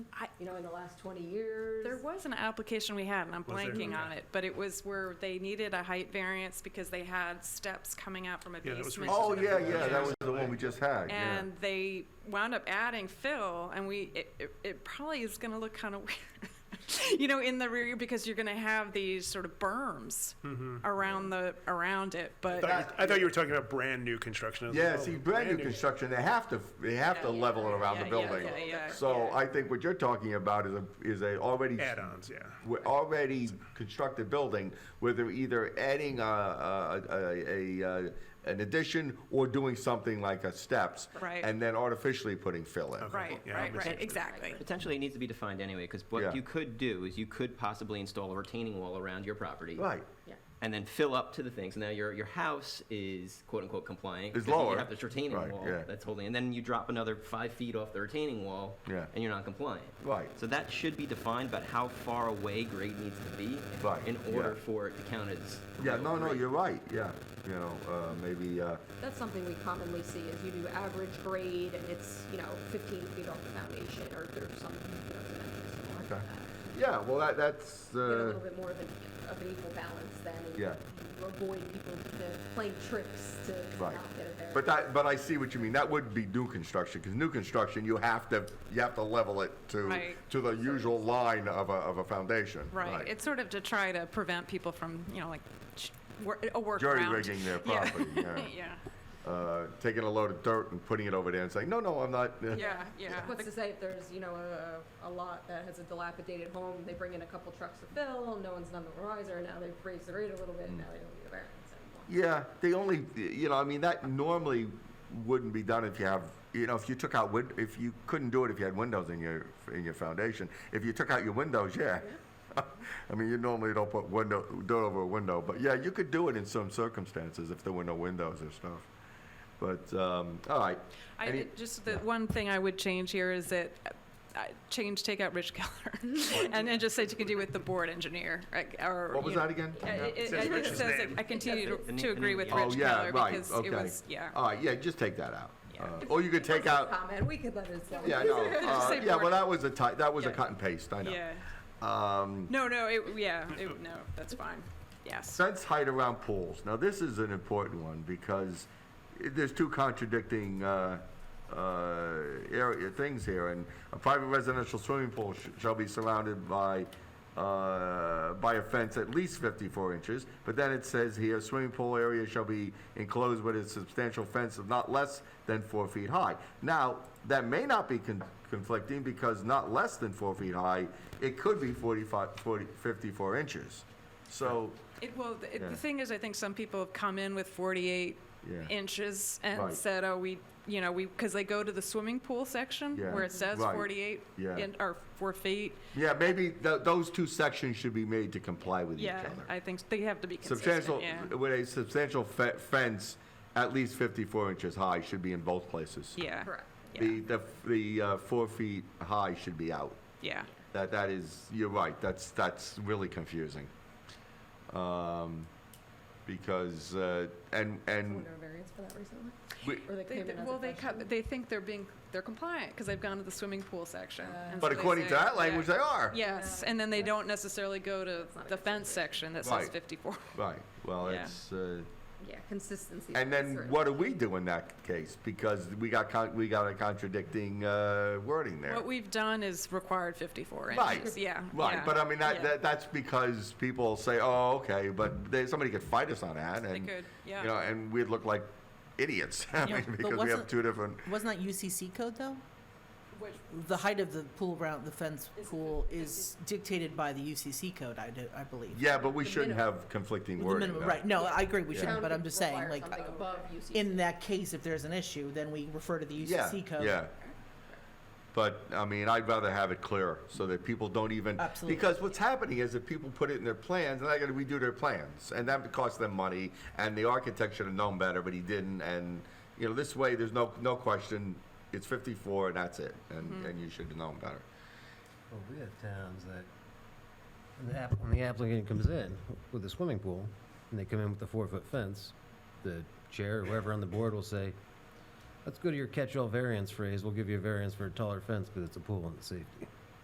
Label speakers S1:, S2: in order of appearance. S1: I, you know, in the last twenty years.
S2: There was an application we had, and I'm
S3: Was there?
S2: blanking on
S3: Okay.
S2: it, but it was where they needed a height variance because they had steps coming out from a
S3: Yeah, that was
S2: basement.
S3: recent.
S4: Oh, yeah, yeah, that was the one we just had, yeah.
S2: And they wound up adding fill, and we, it, it, it probably is gonna look kind of weird, you know, in the rear, because you're gonna have these sort of berms around the, around it, but.
S3: I thought you- I thought you were talking about brand new construction. I was
S4: Yeah,
S3: like, oh,
S4: see, brand new construction, they have to, they have to
S2: Yeah,
S4: level it around
S2: yeah,
S4: the
S2: yeah,
S4: building.
S2: yeah, yeah,
S4: So
S2: yeah.
S4: I think what you're talking about is a, is a already.
S3: Add-ons, yeah.
S4: we're already constructed building where they're either adding a, a, a, a, uh, an addition or doing something like a steps.
S2: Right.
S4: And then artificially putting fill in.
S2: Right,
S3: Yeah, I
S2: right, right,
S3: misunderstood.
S2: exactly.
S5: Potentially, it needs to be defined anyway, because
S4: Yeah.
S5: what you could do is you could possibly install a retaining wall around your property.
S4: Right.
S1: Yeah.
S5: And then fill up to the things. Now, your, your house is quote-unquote compliant.
S4: Is
S5: 'cause
S4: lower.
S5: You have this retaining
S4: Right,
S5: wall
S4: yeah.
S5: that's holding, and then you drop another five feet off the retaining wall.
S4: Yeah.
S5: And you're not compliant.
S4: Right.
S5: So that should be defined about how far away grade needs to be.
S4: Right,
S5: In
S4: yeah.
S5: order for it to count as.
S4: Yeah,
S5: real
S4: no, no,
S5: grade.
S4: you're right, yeah, you know, uh, maybe, uh,
S1: That's something we commonly see is you do average grade and it's, you know, fifteen feet off the foundation or there's some, you know, dimensions more.
S4: okay. Yeah, well, that, that's,
S1: Get a
S4: uh,
S1: little bit more of an, of an equal balance then. and
S4: Yeah.
S1: you Avoid people to playing tricks to not
S4: right.
S1: get a variance.
S4: But that, but I see what you mean, that would be new construction, because new construction, you have to, you have to level it to,
S2: Right.
S4: to the usual line of a, of a foundation.
S2: Right, it's sort of to try to prevent people from, you know, like, sh- wor- a workaround.
S4: Jury rigging their
S2: Yeah.
S4: property, yeah.
S2: Yeah,
S4: uh, taking a load of dirt and putting it over there and saying, no, no, I'm not. uh,
S2: yeah, yeah.
S1: What's to say if there's, you know, a, a lot that has a dilapidated home, they bring in a couple trucks to fill, no one's none the wiser, now they've raised the rate a little bit, now they don't need a variance anymore.
S4: Yeah, they only, you know, I mean, that normally wouldn't be done if you have, you know, if you took out, win- if you couldn't do it if you had windows in your, in your foundation. If you took out your windows, yeah. I mean, you normally don't put window, dirt over a window, but yeah, you could do it in some circumstances if there were no windows or stuff. But, um, all right.
S2: I,
S4: Any-
S2: it- just the one thing I would change here is that, uh, I- change, take out Rich Keller, and then just say to continue with the board engineer, like, or.
S4: What was
S2: you know-
S4: that again?
S2: Uh, It it-
S3: Says
S2: it
S3: Rich's
S2: says,
S3: name.
S2: that I continue to-
S5: And
S2: to
S5: he-
S2: agree
S5: and
S2: with
S5: he-
S4: Oh,
S2: Rich
S4: yeah,
S2: Keller,
S4: right,
S2: because it
S4: okay. Oh,
S2: was, yeah.
S4: All right, yeah, just take that out.
S5: Yeah.
S4: Uh, Or you could take out.
S1: Comment, we could let it slide.
S4: Yeah, I know. Uh,
S2: say
S4: yeah, well,
S2: board.
S4: that was a ti- that was a
S2: Yeah.
S4: cut and paste. I know.
S2: Yeah,
S4: Um,
S2: no, no, it, yeah, it, no, that's fine, yes.
S4: fence height around pools. Now, this is an important one because i- there's two contradicting uh, uh, area things here. And a private residential swimming pool sh- shall be surrounded by uh, by a fence at least 54 inches. But then it says here, swimming pool area shall be enclosed with a substantial fence of not less than four feet high. Now, that may not be con- conflicting because not less than four feet high, it could be 45, 40, 54 inches. So
S2: It, well, the,
S4: Yeah.
S2: the thing is, I think some people have come in with 48
S4: Yeah.
S2: inches and
S4: Right.
S2: said, "Oh, we, you know, we," because they go to the swimming pool section
S4: Yeah.
S2: where it says
S4: Right.
S2: 48
S4: Yeah.
S2: in, or four feet.
S4: Yeah, maybe th- those two sections should be made to comply with each
S2: Yeah,
S4: other.
S2: I think s- they have to be consistent.
S4: Substantial,
S2: yeah.
S4: with a substantial fe- fence at least 54 inches high should be in both places.
S2: yeah,
S1: Correct.
S2: Yeah,
S4: The, the, the uh, four feet high should be out.
S2: yeah.
S4: That, that is, you're right, that's, that's really confusing. Um, Because, uh, and, and,
S1: Under a variance for that recently?
S4: we-
S1: Or they
S2: Mm. They,
S1: came in
S2: th-
S1: as
S2: well,
S1: a
S2: they
S1: question?
S2: cut, they think they're being they're compliant because they've gone to the swimming pool section.
S1: Uh,
S2: and
S4: but
S2: so they
S4: according to
S2: say-
S4: that
S2: yeah.
S4: language, they are.
S2: Yes, and then they don't necessarily go to
S1: That's not a
S2: the
S1: good
S2: fence
S1: situation.
S2: section that says
S4: Right.
S2: 54.
S4: Right, well,
S2: Yeah.
S4: it's, uh,
S1: Yeah, consistency.
S4: And then
S1: Sorry.
S4: what do we do in that case? Because we got, con- we got a contradicting uh, wording there.
S2: What we've done is required 54
S4: Right,
S2: inches. Yeah.
S4: Right,
S2: yeah,
S4: but I mean, that,
S2: yeah.
S4: that, that's because people say, oh, okay, but they, somebody could fight us on that
S2: They
S4: and,
S2: could,
S4: you know,
S2: yeah.
S4: and we'd look like idiots. I
S6: Yeah,
S4: mean,
S6: but
S4: because we have
S6: wasn't-
S4: two different,
S6: Wasn't that UCC code though?
S2: Which-
S6: The height of the pool around, the fence
S2: Is it
S6: pool
S2: fif-
S6: is dictated by the UCC code, I do, I believe.
S4: yeah, but we
S1: The
S4: shouldn't
S1: minimum.
S4: have conflicting
S6: The
S4: wording.
S6: minimum,
S4: though.
S6: right, no, I agree, we
S4: Yeah.
S6: shouldn't, but
S1: Town
S6: I'm
S1: could
S6: just saying,
S1: require
S6: like,
S1: something above UCC.
S6: in that case, if there's an issue, then we refer to the
S4: Yeah,
S6: UCC code.
S4: Yeah. But, I mean, I'd rather have it clear so that people don't even.
S6: Absolutely.
S4: Because what's happening is that people put it in their plans and they're gonna redo their plans. And that costs them money and the architect should have known better, but he didn't. And, you know, this way, there's no, no question. It's fifty-four and that's it.
S6: Mm-hmm.
S4: And, and you should have known better.
S7: Well, we have towns that, when the app- when the applicant comes in with a swimming pool, and they come in with a four-foot fence, the chair, or whoever on the board will say, let's go to your catch-all variance phrase, we'll give you a variance for a taller fence because it's a pool and it's safety.